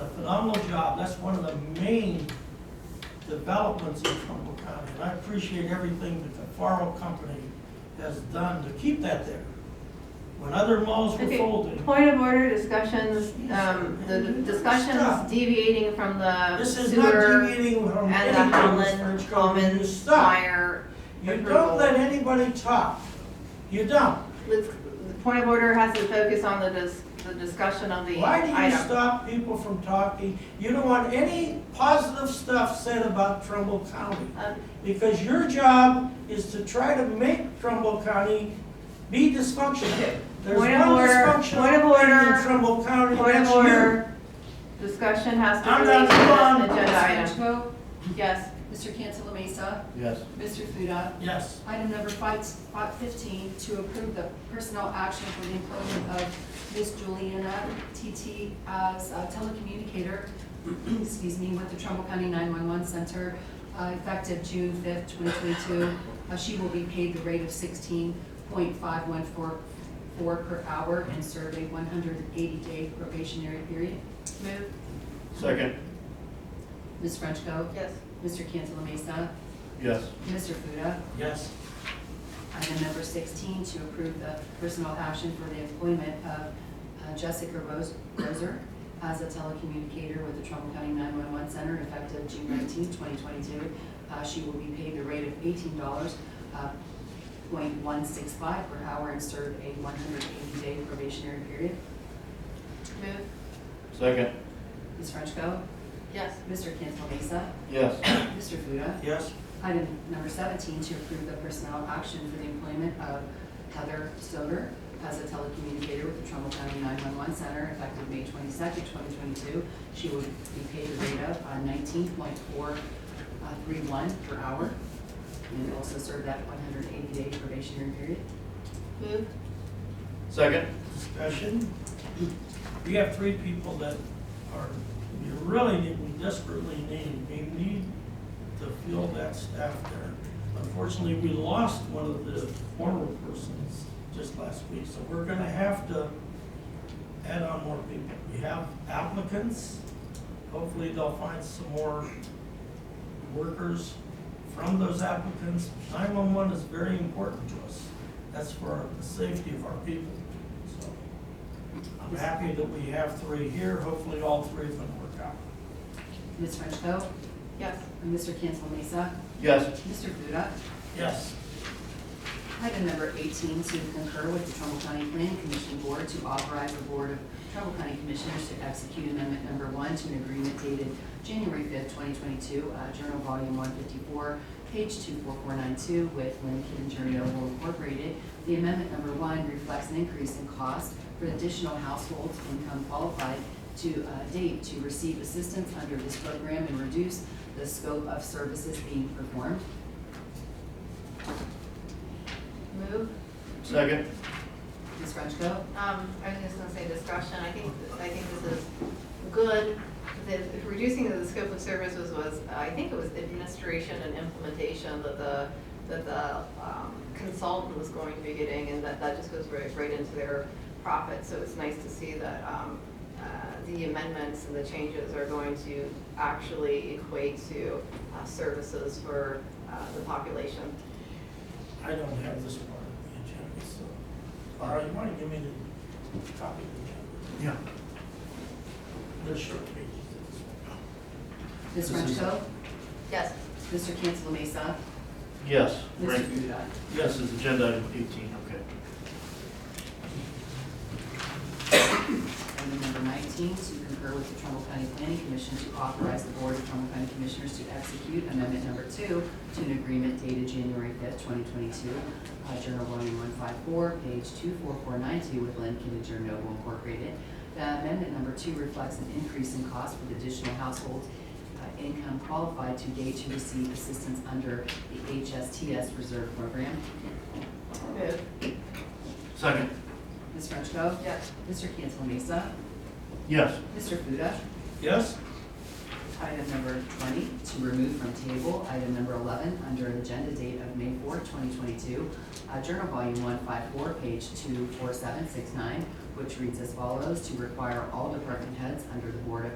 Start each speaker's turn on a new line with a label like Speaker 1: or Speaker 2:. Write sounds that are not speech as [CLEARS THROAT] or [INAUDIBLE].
Speaker 1: phenomenal job. That's one of the main developments in Trumbull County. And I appreciate everything that the Faro Company has done to keep that there. When other malls were
Speaker 2: Okay,
Speaker 1: folded,
Speaker 2: point of order, discussions, um, the discussions deviating from the
Speaker 1: this is not
Speaker 2: sewer
Speaker 1: deviating from
Speaker 2: and the
Speaker 1: anything
Speaker 2: Holland
Speaker 1: that's going to
Speaker 2: Commons
Speaker 1: stop.
Speaker 2: fire
Speaker 1: You don't let
Speaker 2: approval.
Speaker 1: anybody talk. You don't.
Speaker 2: Let's- The point of order has to focus on the dis, the discussion of the
Speaker 1: Why do you
Speaker 2: item.
Speaker 1: stop people from talking? You don't want any positive stuff said about Trumbull County.
Speaker 2: Um,
Speaker 1: Because your job is to try to make Trumbull County be dysfunctional. There's one
Speaker 2: Point of order, point of
Speaker 1: dysfunctional thing
Speaker 2: order,
Speaker 1: in Trumbull County,
Speaker 2: Point of
Speaker 1: that's you.
Speaker 2: order, discussion has to
Speaker 1: I'm
Speaker 2: relate
Speaker 1: not
Speaker 2: to
Speaker 1: done.
Speaker 2: this agenda
Speaker 3: Mr.
Speaker 2: item.
Speaker 3: Vote,
Speaker 2: Yes,
Speaker 3: Mr. Cancela Mesa,
Speaker 4: Yes.
Speaker 3: Mr. Fuda.
Speaker 1: Yes.
Speaker 3: Item number five, spot fifteen, to approve the personnel action for the employment of Ms. Juliana TT as a telecommunicator, [CLEARS THROAT] excuse me, with the Trumbull County nine-one-one center, uh, effective June fifth, twenty twenty-two. Uh, She will be paid the rate of sixteen point five one four four per hour and serve a one hundred and eighty-day probationary period.
Speaker 2: move,
Speaker 4: Second.
Speaker 3: Ms. Frenchco.
Speaker 2: yes.
Speaker 3: Mr. Cancela Mesa.
Speaker 4: Yes.
Speaker 3: Mr. Fuda.
Speaker 1: Yes.
Speaker 3: Item number 16, to approve the personal action for the employment of uh, Jessica Rose- Roser as a telecommunicator with the Trumbull County 911 Center effective June 19, 2022. Uh, She will be paid the rate of uh, $18.165 per hour and serve a 180-day probationary period.
Speaker 2: Move,
Speaker 4: Second.
Speaker 3: Ms. Frenchco.
Speaker 2: yes.
Speaker 3: Mr. Cancel Mesa.
Speaker 4: Yes.
Speaker 3: Mr. Fuda.
Speaker 1: Yes.
Speaker 3: Item number 17, to approve the personnel action for the employment of Heather Soder as a telecommunicator with the Trumbull County 911 Center effective May 22nd, 2022. She will be paid a rate of uh, 19.431 uh, per hour and will also serve that 180-day probationary period.
Speaker 2: Move,
Speaker 4: Second.
Speaker 1: Discussion. We have three people that are, you really need, we desperately need, we need to fill that staff there. Unfortunately, we lost one of the former persons just last week, so we're gonna have to add on more people. We have applicants, hopefully they'll find some more workers from those applicants. Nine-one-one is very important to us, that's for our- the safety of our people, so. I'm happy that we have three here, hopefully all three of them work out.
Speaker 3: Ms. Frenchco.
Speaker 2: yes.
Speaker 3: Mr. Cancel Mesa.
Speaker 4: Yes.
Speaker 3: Mr. Fuda.
Speaker 1: Yes.
Speaker 3: Item number 18, to concur with the Trumbull County Planning Commission Board to authorize the Board of Trumbull County Commissioners to execute Amendment Number 1 to an agreement dated January 5th, 2022, uh, Journal Volume 154, page 24492, with Lincoln Journal Incorporated. The Amendment Number 1 reflects an increase in cost for additional households income qualified to uh, date to receive assistance under this program and reduce the scope of services being performed.
Speaker 2: Move,
Speaker 4: Second.
Speaker 3: Ms. Frenchco.
Speaker 2: Um, I was just gonna say discussion, I think, I think this is good. The reducing of the scope of services was, uh, I think it was administration and implementation that the, that the um, consultant was going to be getting, and that, that just goes right, right into their profit, so it's nice to see that, um, uh, the amendments and the changes are going to actually equate to, uh, services for, uh, the population.
Speaker 1: I don't have this part of the agenda, so. All right, you wanna give me the copy of
Speaker 4: Yeah.
Speaker 1: the agenda? They're short pages. that's all.
Speaker 3: Ms. Frenchco.
Speaker 2: Yes.
Speaker 3: Mr. Cancel Mesa.
Speaker 4: Yes.
Speaker 3: Mr.
Speaker 4: Right.
Speaker 3: Fuda.
Speaker 4: Yes is agenda item eighteen, okay.
Speaker 3: Item number 19, to concur with the Trumbull County Planning Commission to authorize the Board of Trumbull County Commissioners to execute Amendment Number 2 to an agreement dated January 5th, 2022, uh, Journal Volume 154, page 24492, with Lincoln and Journal Noble Incorporated. The Amendment Number 2 reflects an increase in cost for the additional household uh, income qualified to date to receive assistance under the HSTS Reserve Program.
Speaker 2: Move.
Speaker 4: Second.
Speaker 3: Ms. Frenchco.
Speaker 2: Yes.
Speaker 3: Mr. Cancel Mesa.
Speaker 4: Yes.
Speaker 3: Mr. Fuda.
Speaker 1: Yes?
Speaker 3: Item number 20, to remove from table. Item number 11, under agenda date of May 4, 2022, uh, Journal Volume 154, page 24769, which reads as follows, "To require all department heads under the Board of